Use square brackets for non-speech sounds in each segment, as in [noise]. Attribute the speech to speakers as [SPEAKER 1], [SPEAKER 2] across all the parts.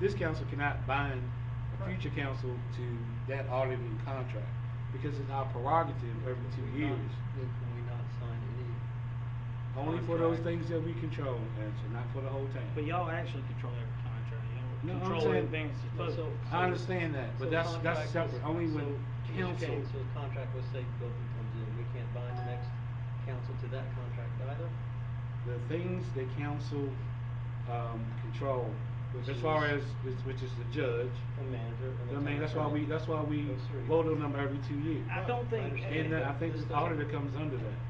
[SPEAKER 1] this council cannot bind a future council to that auditing contract, because it's our prerogative every two years,
[SPEAKER 2] Then can we not sign any?
[SPEAKER 1] only for those things
[SPEAKER 2] contract?
[SPEAKER 1] that we control, Angela, not for the whole town.
[SPEAKER 3] But y'all actually control every contract,
[SPEAKER 1] No,
[SPEAKER 3] y'all
[SPEAKER 1] I'm
[SPEAKER 3] control
[SPEAKER 1] saying-
[SPEAKER 3] everything that's supposed
[SPEAKER 2] So-
[SPEAKER 3] to.
[SPEAKER 2] so-
[SPEAKER 1] I understand that, but
[SPEAKER 2] so
[SPEAKER 1] that's- that's
[SPEAKER 2] contract was-
[SPEAKER 1] separate. Only when
[SPEAKER 2] so each
[SPEAKER 1] council-
[SPEAKER 2] case, So a contract with Safe Building comes in, we can't bind the next council to that contract either?
[SPEAKER 1] the things that council, um, control,
[SPEAKER 2] Which
[SPEAKER 1] as far as,
[SPEAKER 2] is-
[SPEAKER 1] which- which is the judge.
[SPEAKER 2] The manager and the
[SPEAKER 1] I mean,
[SPEAKER 2] town
[SPEAKER 1] that's why we,
[SPEAKER 2] attorney.
[SPEAKER 1] that's why we
[SPEAKER 2] Those three.
[SPEAKER 1] vote on them every two years.
[SPEAKER 3] I don't
[SPEAKER 2] I
[SPEAKER 3] think.
[SPEAKER 2] understand
[SPEAKER 1] And then I think
[SPEAKER 2] This
[SPEAKER 1] the
[SPEAKER 2] doesn't-
[SPEAKER 1] auditor comes under that,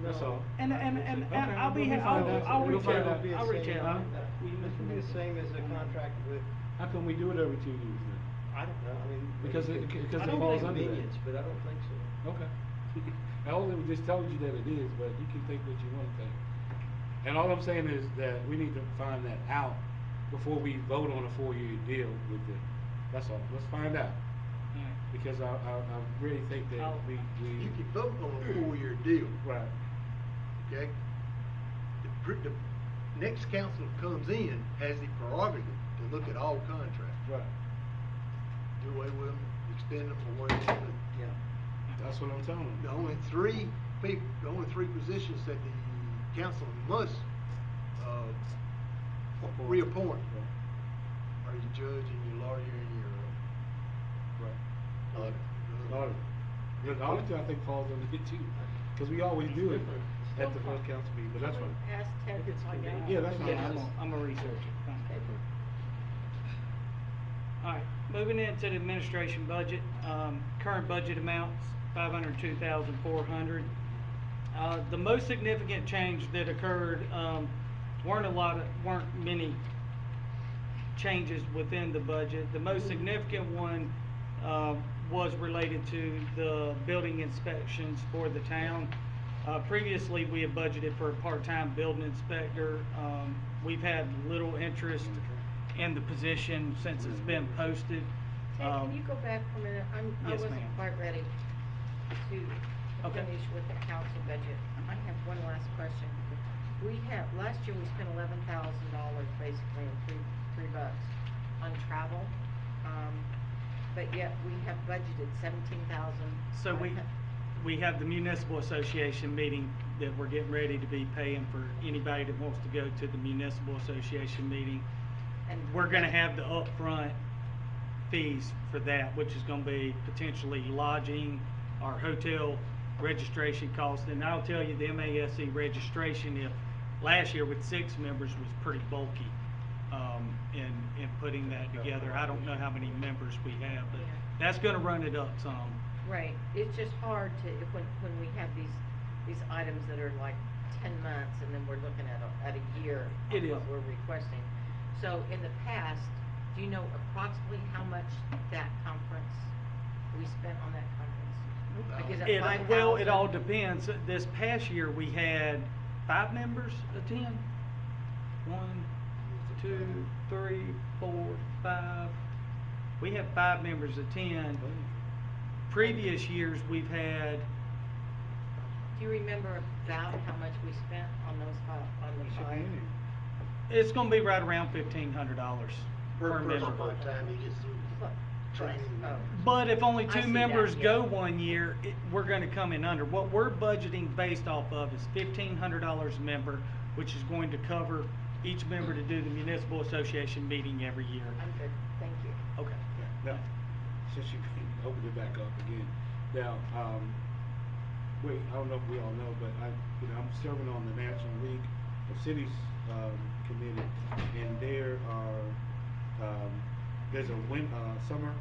[SPEAKER 1] that's
[SPEAKER 2] No.
[SPEAKER 1] all.
[SPEAKER 3] And, and,
[SPEAKER 2] Okay,
[SPEAKER 3] and,
[SPEAKER 2] we'll
[SPEAKER 3] and I'll be,
[SPEAKER 1] find
[SPEAKER 3] I'll,
[SPEAKER 1] out.
[SPEAKER 3] I'll
[SPEAKER 1] We'll
[SPEAKER 3] reach
[SPEAKER 1] find
[SPEAKER 3] out,
[SPEAKER 1] out.
[SPEAKER 3] I'll reach out. We-
[SPEAKER 2] This would be the same as a contract with,
[SPEAKER 1] How come we do it every two years then?
[SPEAKER 2] I don't know, I mean. maybe
[SPEAKER 1] Because it-
[SPEAKER 2] could-
[SPEAKER 1] because
[SPEAKER 2] I
[SPEAKER 3] it
[SPEAKER 2] don't
[SPEAKER 3] falls
[SPEAKER 2] think
[SPEAKER 3] under that.
[SPEAKER 2] minions, But I don't think so.
[SPEAKER 1] Okay. [laughs] I only just told you that it is, but you can think what you want to think. And all I'm saying is that we need to find that out before we vote on a four-year deal with them. That's all, let's find out, because I, I, I really think that
[SPEAKER 3] I'll-
[SPEAKER 1] we, we.
[SPEAKER 4] You can vote on a four-year deal,
[SPEAKER 1] Right.
[SPEAKER 4] okay? The, pr- the next council that comes in has the prerogative to look at all contracts.
[SPEAKER 1] Right.
[SPEAKER 4] Do away with them, extend them, or whatever. but
[SPEAKER 2] Yeah.
[SPEAKER 1] That's what I'm telling them.
[SPEAKER 4] The only three people, the only three positions that the council must, uh,
[SPEAKER 1] Appoint.
[SPEAKER 4] reappoint
[SPEAKER 1] Right.
[SPEAKER 4] are your judge and your lawyer and
[SPEAKER 1] Right.
[SPEAKER 4] your, uh, auditor.
[SPEAKER 1] Auditor. The auditor, I think, falls under it too, because we always do it at the first council meeting, but that's fine.
[SPEAKER 5] Ask Ted
[SPEAKER 2] If
[SPEAKER 5] to
[SPEAKER 2] it's
[SPEAKER 5] find
[SPEAKER 2] convenient.
[SPEAKER 5] out.
[SPEAKER 1] Yeah, that's fine.
[SPEAKER 3] Yeah, I'm gonna, I'm gonna research it.
[SPEAKER 5] Okay.
[SPEAKER 3] Alright, moving into the administration budget, um, current budget amounts, five hundred two thousand four hundred. Uh, the most significant change that occurred, um, weren't a lot, of- weren't many changes within the budget. The most significant one, uh, was related to the building inspections for the town. Uh, previously, we had budgeted for a part-time building inspector. Um, we've had little interest in the position since it's been posted.
[SPEAKER 5] Ted,
[SPEAKER 3] Um,
[SPEAKER 5] can you go back for a minute? I'm, I
[SPEAKER 3] yes, ma'am.
[SPEAKER 5] wasn't quite ready to
[SPEAKER 3] Okay.
[SPEAKER 5] finish with the council budget. I have one last question. We have, last year we spent eleven thousand dollars basically in three, three bucks on travel. Um, but yet we have budgeted seventeen thousand.
[SPEAKER 3] So we, we have the municipal association meeting that we're getting ready to be paying for anybody that wants to go to the municipal association meeting.
[SPEAKER 5] And
[SPEAKER 3] We're gonna have the upfront fees for that, which is gonna be potentially lodging, our hotel registration costs. And I'll tell you, the MASC E registration, if, last year with six members was pretty bulky, um, in, in putting that together. I don't know how many members we have, but
[SPEAKER 5] Yeah.
[SPEAKER 3] that's gonna run it up some.
[SPEAKER 5] Right, it's just hard to, if- when, when we have these, these items that are like ten months, and then we're looking at a, at a year
[SPEAKER 3] It
[SPEAKER 5] on
[SPEAKER 3] is.
[SPEAKER 5] what we're requesting. So in the past, do you know approximately how much that conference, we spent on that conference? Like, is
[SPEAKER 4] uh,
[SPEAKER 5] it
[SPEAKER 3] It-
[SPEAKER 5] five
[SPEAKER 3] Well, it all
[SPEAKER 5] thousand?
[SPEAKER 3] depends. This past year, we had five members attend. One, two, three, four, five. We had five members attend. Previous years, we've had,
[SPEAKER 5] Do you remember about how much we spent on those five, on
[SPEAKER 1] It
[SPEAKER 5] the
[SPEAKER 1] should be
[SPEAKER 5] five?
[SPEAKER 1] in here.
[SPEAKER 3] it's gonna be right around fifteen hundred dollars per member.
[SPEAKER 4] By the time he gets through
[SPEAKER 5] Plus-
[SPEAKER 4] training.
[SPEAKER 5] plus, oh.
[SPEAKER 3] But if only
[SPEAKER 5] I
[SPEAKER 3] two
[SPEAKER 5] see that,
[SPEAKER 3] members
[SPEAKER 5] yeah.
[SPEAKER 3] go one year, it, we're gonna come in under. What we're budgeting based off of is fifteen hundred dollars a member, which is going to cover each member to do the municipal association meeting every year.
[SPEAKER 5] I'm good, thank you.
[SPEAKER 3] Okay.
[SPEAKER 1] Now, since you opened it back up again, now, um, wait, I don't know if we all know, but I, you know, I'm serving on the National League of Cities, um, committee, and there are, um, there's a win, uh, summer.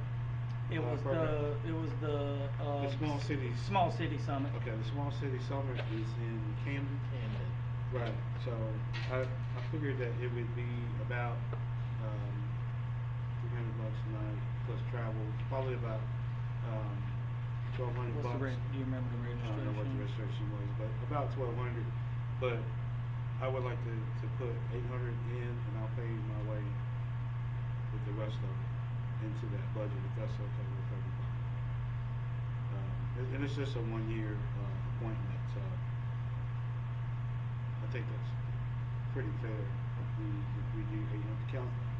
[SPEAKER 3] It
[SPEAKER 1] uh,
[SPEAKER 3] was the,
[SPEAKER 1] program.
[SPEAKER 3] it was the, uh.
[SPEAKER 1] The small cities.
[SPEAKER 3] Small city summit.
[SPEAKER 1] Okay, the small city summer is in Camden. Right, so I, I figured that it would be about, um, three hundred bucks a night plus travel, probably about, um, twelve hundred
[SPEAKER 3] What's the
[SPEAKER 1] bucks.
[SPEAKER 3] reg- do you remember the
[SPEAKER 1] I don't know what the
[SPEAKER 3] registration?
[SPEAKER 1] registration was, but about twelve hundred, but I would like to, to put eight hundred in and I'll pay my way with the rest of it into that budget, if that's okay with everybody. Um, and- and it's just a one-year, uh, appointment, so I think that's pretty fair. We, if we do eight hundred, council,